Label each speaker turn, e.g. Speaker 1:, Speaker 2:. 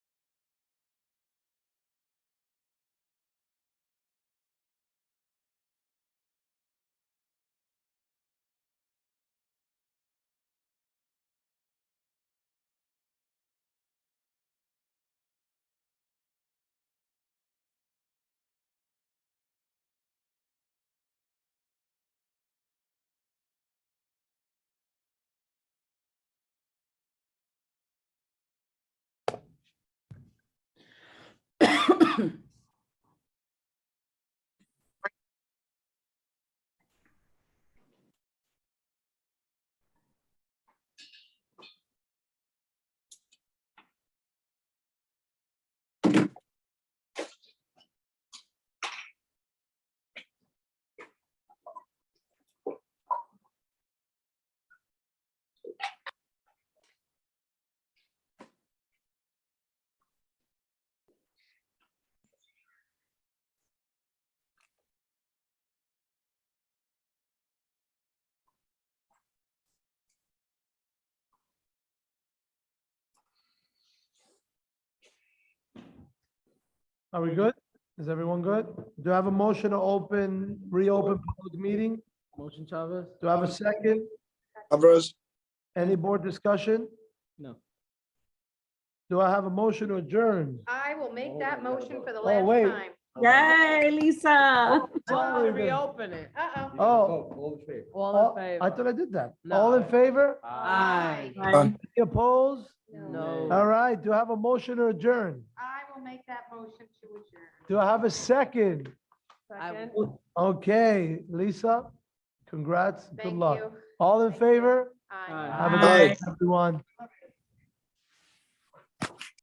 Speaker 1: Are we good? Is everyone good? Do I have a motion to open, reopen public meeting?
Speaker 2: Motion Chavez?
Speaker 1: Do I have a second?
Speaker 3: Alvarez,
Speaker 1: Any board discussion?
Speaker 2: No.
Speaker 1: Do I have a motion to adjourn?
Speaker 4: I will make that motion for the
Speaker 1: Oh,
Speaker 4: last
Speaker 1: wait.
Speaker 4: time.
Speaker 5: Yay, Lisa.
Speaker 2: Well,
Speaker 1: Sorry, then.
Speaker 2: reopen it.
Speaker 4: Uh-oh.
Speaker 1: Oh.
Speaker 2: All
Speaker 1: Oh,
Speaker 2: in favor?
Speaker 1: I thought I did that.
Speaker 2: No.
Speaker 1: All in favor?
Speaker 2: Aye.
Speaker 5: Bye.
Speaker 1: Any Opposed?
Speaker 2: No.
Speaker 1: All right, do I have a motion to adjourn?
Speaker 4: I will make that motion to adjourn.
Speaker 1: Do I have a second?
Speaker 2: I-
Speaker 1: Okay, Lisa, congrats, good
Speaker 4: Thank
Speaker 1: luck.
Speaker 4: you.
Speaker 1: All in favor?
Speaker 4: Aye.
Speaker 2: Aye.
Speaker 1: Have a
Speaker 5: Aye.
Speaker 1: good night, everyone.